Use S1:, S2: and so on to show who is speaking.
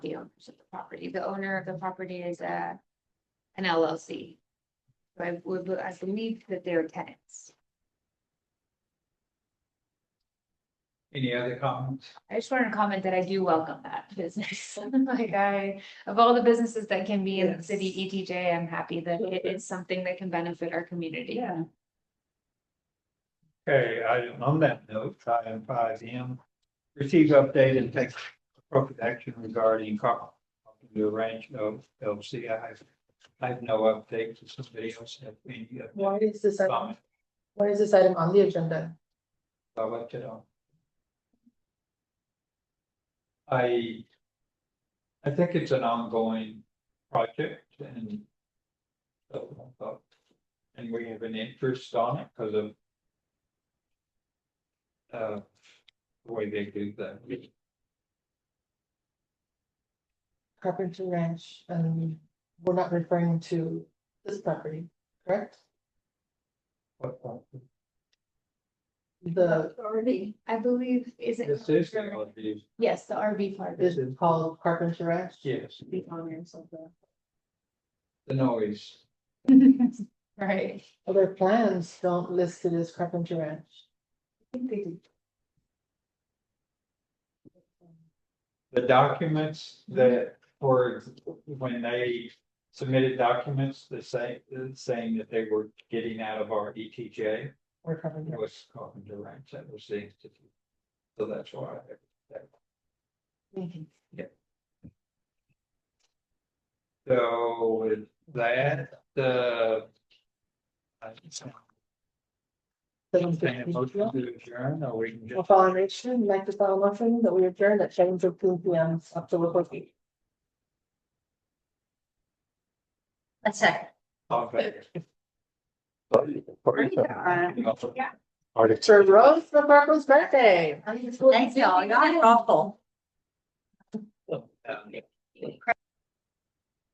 S1: property. The owner of the property is a, an LLC. So I would, I believe that they're tenants.
S2: Any other comments?
S1: I just wanted to comment that I do welcome that business. Like I, of all the businesses that can be in the city ETJ, I'm happy that it is something that can benefit our community.
S3: Yeah.
S2: Okay, I, on that note, item five M, receive update and take appropriate action regarding Carl. The range of LC, I have, I have no updates, Does somebody else have any uh,
S3: Why is this, item-
S2: comment,
S3: why is this item on the agenda?
S2: I left it on. I, I think it's an ongoing project and so, uh, and we have an interest on it because of uh, the way they do that.
S3: Carpenter Ranch, and we're not referring to this property, correct?
S2: What part?
S3: The,
S1: RV. I believe, is it?
S2: This is, the LD.
S1: Yes, the RV part.
S3: is it called Carpenter Ranch?
S2: yes,
S3: The owners of the.
S2: the noise.
S1: Right.
S3: Other plans don't list it as Carpenter Ranch.
S2: the documents that were, when they submitted documents, the same, saying that they were getting out of our E ETJ.
S3: Or Carpenter,
S2: That was Carpenter Ranch, that was the institute. So that's why.
S3: Mhm.
S2: So with that, the. I think someone
S3: seven
S2: saying a
S3: fifteen
S2: motion
S3: PM.
S2: to adjourn, or we can
S3: We'll
S2: just,
S3: file a motion, like to file a motion that we adjourn at seven fifteen P M, October fourteenth.
S1: A second.
S2: okay.
S3: To Rose McCormick's birthday.
S1: Thanks, y'all. Y'all are awful.